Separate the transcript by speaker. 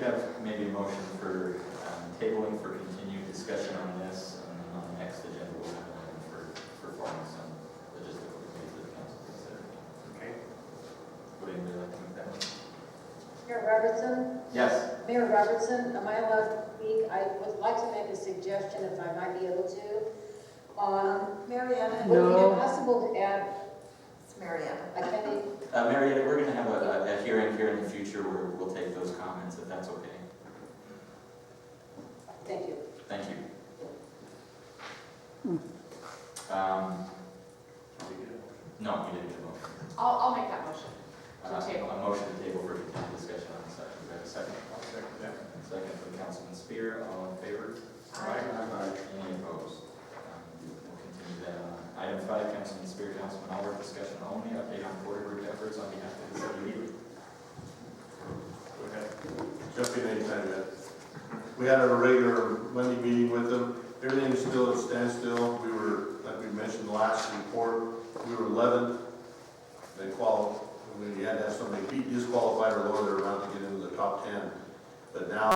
Speaker 1: have maybe a motion for um, tabling for continued discussion on this, and then on the next agenda, we'll have one for, for forming some logistical committees that the council consider.
Speaker 2: Okay.
Speaker 1: Would anybody like to make that motion?
Speaker 3: Mayor Robertson,
Speaker 1: Yes,
Speaker 3: Mayor Robertson, am I allowed to speak? I would like to make a suggestion if I might be able to. Um,
Speaker 4: Mariana.
Speaker 3: would it be possible to add,
Speaker 4: It's Mariana.
Speaker 3: I can,
Speaker 1: uh, Marietta, we're gonna have a, a- a hearing here in the future where we'll take those comments, if that's okay.
Speaker 3: thank you.
Speaker 1: Thank you. Um, no, you didn't get a motion.
Speaker 5: I'll, I'll make that motion.
Speaker 1: Uh,
Speaker 5: To table.
Speaker 1: A motion to table for continued discussion on this item. Do I have a second?
Speaker 2: I'll second that.
Speaker 1: Second from Councilman Spear, all in favor?
Speaker 2: Aye.
Speaker 1: Any opposed? Um, We'll continue that on. Item five, Councilman Spear, Councilman Oliver, discussion only, update on Porter Group efforts on behalf of the city of Ely.
Speaker 2: Go ahead.
Speaker 6: jump in anytime yet. We had our regular Monday meeting with them, everything's still at standstill, we were, like we mentioned last report, we were eleventh. They qualified, we had to have somebody beat, disqualified or lower their round to get into the top ten. But now